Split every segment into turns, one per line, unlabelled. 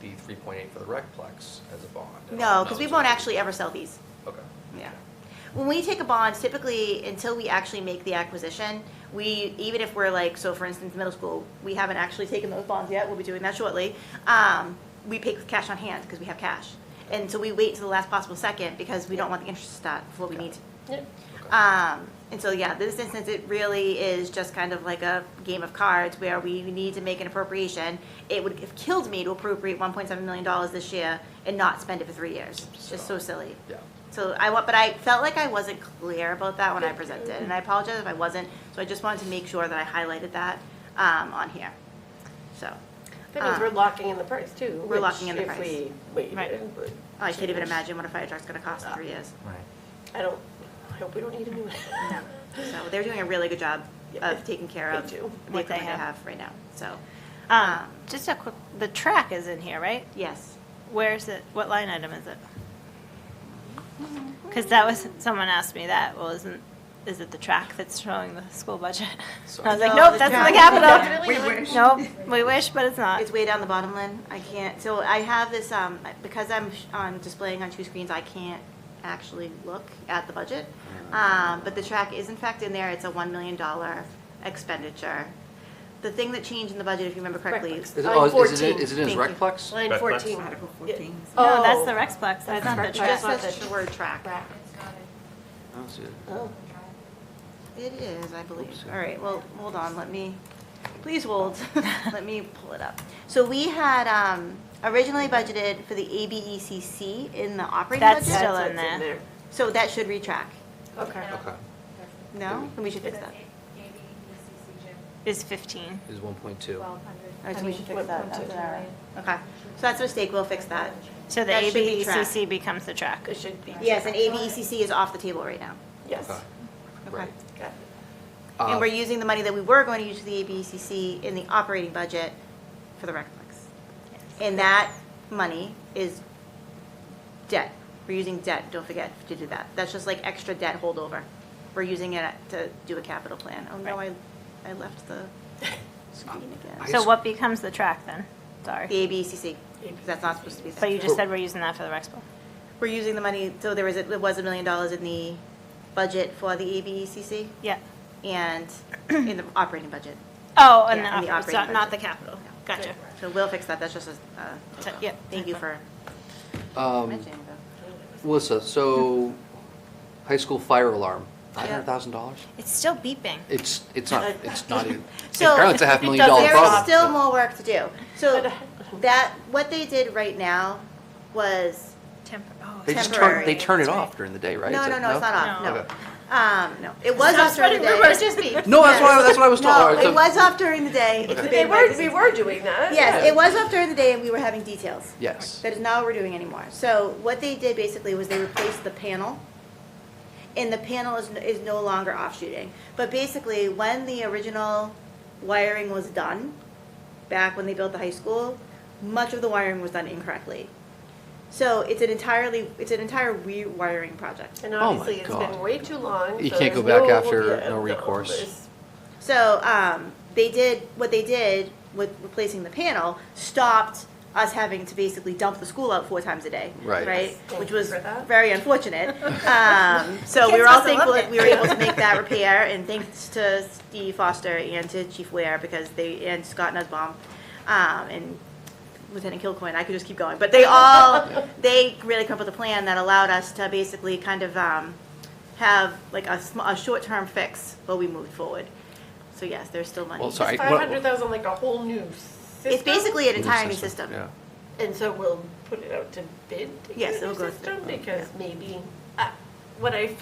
the three point eight for the recplex as a bond? at all?
No, because we
it's
won't
okay.
actually ever sell these.
Okay.
Yeah. When we take a bond, typically, until we actually make the acquisition, we, even if we're like, so for instance, middle school, we haven't actually taken those bonds yet, we'll be doing that shortly, um, we pay with cash on hand, because we have cash. And so we wait until the last possible second, because we don't want the interest to stop before we need to.
Yep.
Okay.
Um, and so, yeah, this instance, it really is just kind of like a game of cards where we need to make an appropriation. It would have killed me to appropriate one point seven million dollars this year and not spend it for three years. It's just so silly.
Yeah.
So I want, but I felt like I wasn't clear about that when I presented, and I apologize if I wasn't. So I just wanted to make sure that I highlighted that, um, on here. So, um,
That means we're locking in the price too.
Ah. We're
which
locking in the price.
If we waited
Right.
and would
I can't even
change.
imagine what a fire truck's gonna cost in three years.
I don't, I hope we don't need a new one.
So they're doing a really good job
Yeah.
of taking care
They
of
do.
what
What they
equipment they
have.
have right now, so,
Um,
um,
just a quick, the track is in here, right?
yes.
Where is it? What line item is it? Because that was, someone asked me that, well, isn't, is it the track that's showing the school budget? I was like,
No,
nope,
the
that's not the
track.
capital.
We wish.
Nope, we wish, but it's not.
Uh, It's way down the bottom, Lynn. I can't, so I have this, um, because I'm sh- on displaying on two screens, I can't actually look at the budget. Um, but the track is in fact in there. It's a one million dollar expenditure. The thing that changed in the budget, if you remember correctly,
Recplex.
Is it,
Line
oh, is it,
14.
is it in his
Thank you.
recplex?
Line
That's- that's
14.
Article
Yeah.
14.
No,
Oh.
that's the Rexplex, that's not the
Rexplex.
track.
just
It's not
says
the-
the word track.
Rack.
I don't see it.
Oh,
It is, I believe.
Oops.
All right, well, hold on, let me, please hold. Let me pull it up. So we had, um, originally budgeted for the ABECC in the operating
That's
budget.
Still
that's
in
what's in
there.
there.
So that should retrack.
Okay.
Okay,
No? Then we should fix that.
Is fifteen.
it's one point two.
All right, so we should fix
What
that.
point
That's
is it?
what I- Okay, so that's a mistake, we'll fix that.
So the E
That should be track.
ABCC becomes the track.
It should be.
Yes, and ABECC is off the table right now.
Yes.
Okay, right.
Got it.
And
Uh,
we're using the money that we were going to use for the ABECC in the operating budget for the Recplex. And that money is debt. We're using debt, don't forget to do that. That's just like extra debt holdover. We're using it to do a capital plan. Oh, no, I, I left the screen
I
again.
So
just-
what becomes the track then? Sorry.
The ABECC, because that's not supposed to be.
But you just said we're using that for the Rexplex.
We're using the money, so there was, a- it was a million dollars in the budget for the ABECC
Yeah.
and in the operating budget.
Oh, and
Yeah, in the
the, op- it's not,
operating
not the
budget.
capital. Gotcha.
So we'll fix that, that's just a, uh,
So- yeah,
thank you for
Um,
mentioning that.
Melissa, so, high school fire alarm,
Yeah.
five hundred thousand dollars?
It's still beeping.
It's, it's not, it's not even,
So-
apparently it's a half
It
million dollar
doesn't
problem.
There's still more work to do. So that, what they did right now was,
Temp- oh,
They just turn,
temporary,
they turn it
that's right.
off during the day, right? Is
no,
it-
no, no, it's not off,
No.
no.
Okay.
Um, no, it was off during the day.
No, that's why, that's what I was told.
No, it was off during the day. It's
They
debated by
were,
the-
we were doing that.
Yes, it was off during the day and we were having details.
Yes.
That is not what we're doing anymore. So what they did basically was they replaced the panel, and the panel is, is no longer offshooting. But basically, when the original wiring was done, back when they built the high school, much of the wiring was done incorrectly. So it's an entirely, it's an entire rewiring project.
And
Oh my
obviously, it's been
God.
way too long.
You
so
can't go
there's
back
no-
after,
yeah,
no recourse.
there's-
So um, they did what they did with replacing the panel stopped us having to basically dump the school out four times a day,
Right.
Thank
Which
you
was
for that.
very unfortunate. Um, so we
Kids
were all
must have
thankful
loved
that
it.
we were able to make that repair, and thanks to Steve Foster and to Chief Ware because they and Scott Nussbaum um, and Lieutenant Kilcoin. I could just keep going, but they all they really come up with a plan that allowed us to basically kind of um, have like a, sm- a short-term fix while we moved forward. So yes, there's still money.
Well, sorry.
Is
what-
500,000 like a whole new system?
It's basically an entire new system.
Yeah.
And so we'll put it out to bid to get
Yes,
a new
it'll go to
system,
bid,
because maybe, uh, what I,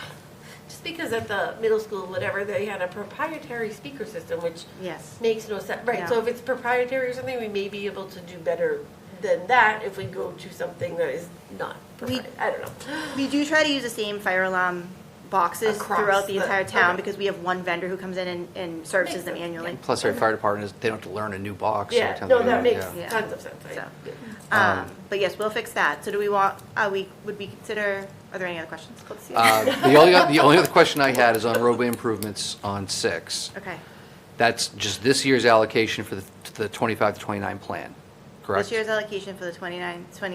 just because at the middle school, whatever, they had a proprietary speaker system, which
Yes.
makes no sense, right,
No.
so if it's proprietary or something, we may be able to do better than that if we go to something that is not
We-
proprietary, I don't know.
We do try to use the same fire alarm boxes
Across
throughout the
the-
entire town
okay.
because we have one vendor who comes in and, and services
Makes
them
sense,
annually.
Plus, our fire department is, they don't have to learn a new box. every
uh, Yeah,
time
no,
they-
that makes
yeah.
Yeah.
tons of sense, I-
So.
yeah.
Um, but yes, we'll fix that. So do we want, uh, we, would we consider, are there any other questions? Let's see.
Uh, The only, the only other question I had is on roadway improvements on six.
Okay,
That's just this year's allocation for the- the 25 to 29 plan. correct?
This year's allocation for the 29, 20